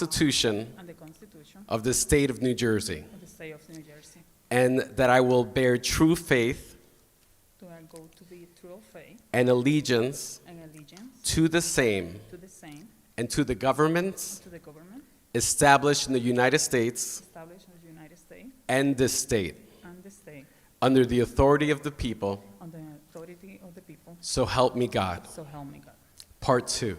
Constitution and the Constitution of the State of New Jersey, of the State of New Jersey, and that I will bear true faith to go to the true faith and allegiance and allegiance to the same to the same, and to the governments to the government established in the United States established in the United States and this state and the state under the authority of the people, on the authority of the people, so help me God. so help me God. Part two.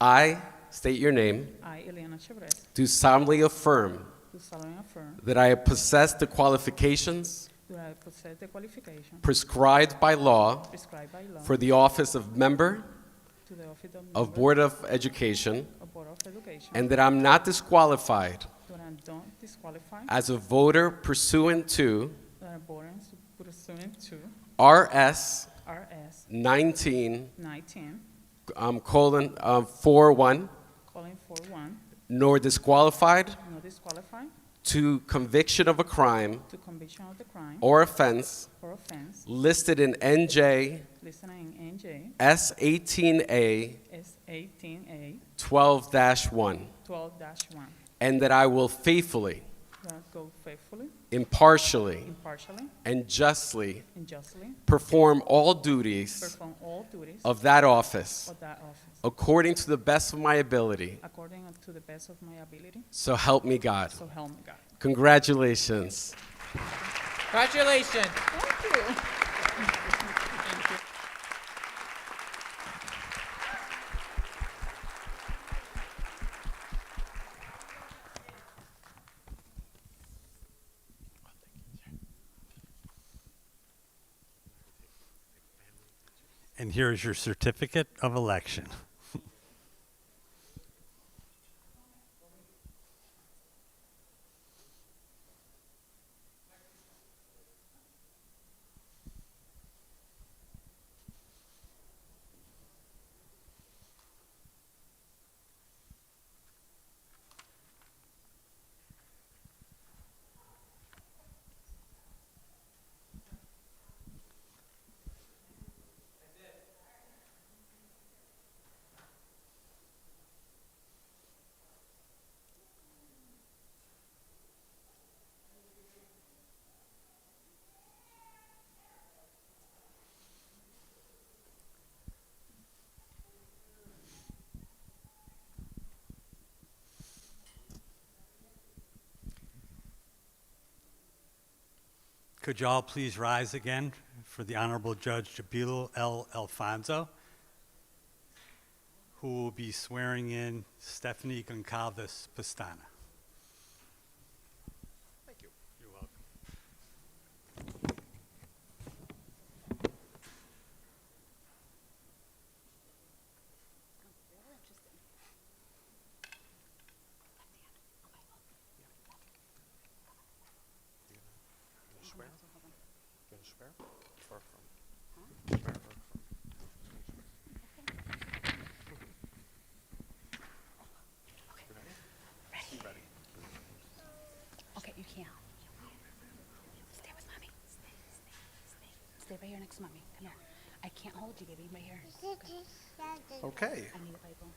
I state your name, I, Eliana Chevres, do solemnly affirm do solemnly affirm that I possess the qualifications that I possess the qualification prescribed by law prescribed by law for the office of member to the office of of member Board of Education, of Board of Education, and that I'm not disqualified that I don't disqualify, as a voter pursuant to that I born pursuant to RS RS 19 19, um, colon um, 41, calling for one, nor disqualified not disqualified to conviction of a crime to conviction of the crime or offense or offense listed in NJ listed in NJ S 18A S 18A 12 1, 12 1. and that I will faithfully, That I go faithfully, impartially, impartially, and justly and justly perform all duties perform all duties of that office of that office according to the best of my ability. according to the best of my ability. So help me God. So help me God. Congratulations. Congratulations. Thank you. And here is your certificate of election. Could you all please rise again for the Honorable Judge Jabilo L. Alfonso, who will be swearing in Stephanie Goncalves Pestana. Thank you. You're welcome. Okay, you can. Stay with mommy. Stay, stay, stay. Stay right here next to mommy. Come here. I can't hold you, baby. Right here. Okay. I need a Bible.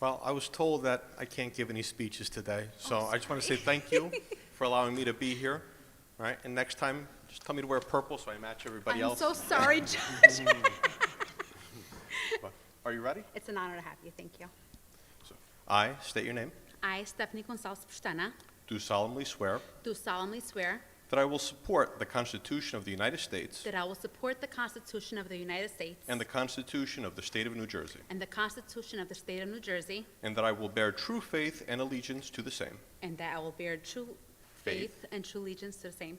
Well, I was told that I can't give any speeches today, so I just want to say thank you for allowing me to be here. All right, and next time, just tell me to wear purple so I match everybody I'm else. so sorry, Judge. But Are you ready? it's an honor to have you. Thank you. So, I state your name. I, Stephanie Gonzalez Pestana, Do solemnly swear do solemnly swear that I will support the Constitution of the United States that I will support the Constitution of the United States and the Constitution of the State of New Jersey, and the Constitution of the State of New Jersey, and that I will bear true faith and allegiance to the same and that I will bear true Faith. faith and true allegiance to the same,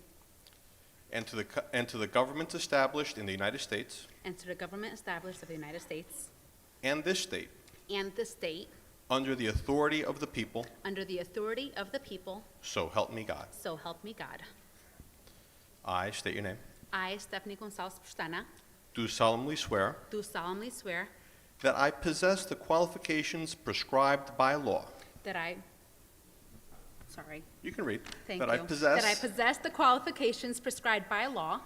and to the co- and to the governments established in the United States and to the government established of the United States and this state and the state under the authority of the people. under the authority of the people, So help me God. so help me God. I state your name. I, Stephanie Gonzalez Pestana, Do solemnly swear do solemnly swear that I possess the qualifications prescribed by law. that I, sorry, You can read. thank that you. I possess That I possess the qualifications prescribed by law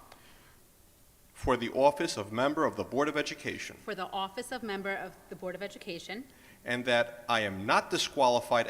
for the office of member of the Board of Education, for the office of member of the Board of Education, and that I am not disqualified